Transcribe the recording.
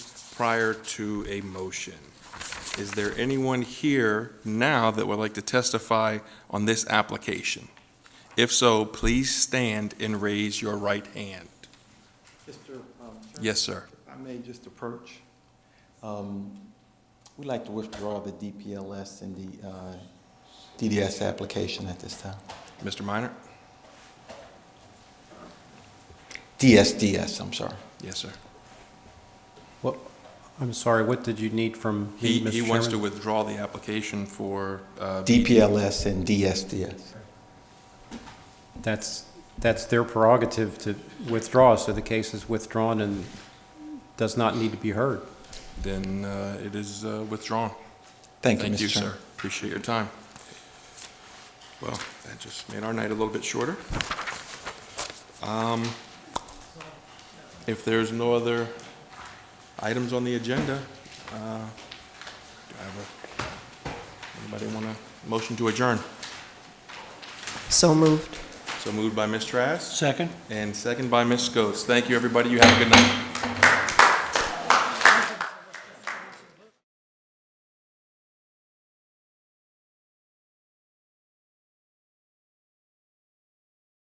prior to a motion. Is there anyone here now that would like to testify on this application? If so, please stand and raise your right hand. Mr. um, Chairman, Yes, sir. If I may just approach, um, we'd like to withdraw the DPLS and the uh, DDS application at this time. Mr. Minor? DSDS, I'm sorry. Yes, sir. What, I'm sorry, what did you need from He, me, he Mr. wants to Chairman? withdraw the application for, uh, DPLS and DSDS. That's, that's their prerogative to withdraw, so the case is withdrawn and does not need to be heard. then uh, it is uh, withdrawn. Thank you, Mr. Chairman. sir. Appreciate your time. Well, that just made our night a little bit shorter. Um, If there's no other items on the agenda, uh, do I have a- anybody want to motion to adjourn? So moved. So moved by Ms. Trask Second? and second by Ms. Scholes. Thank you, everybody. You have a good night.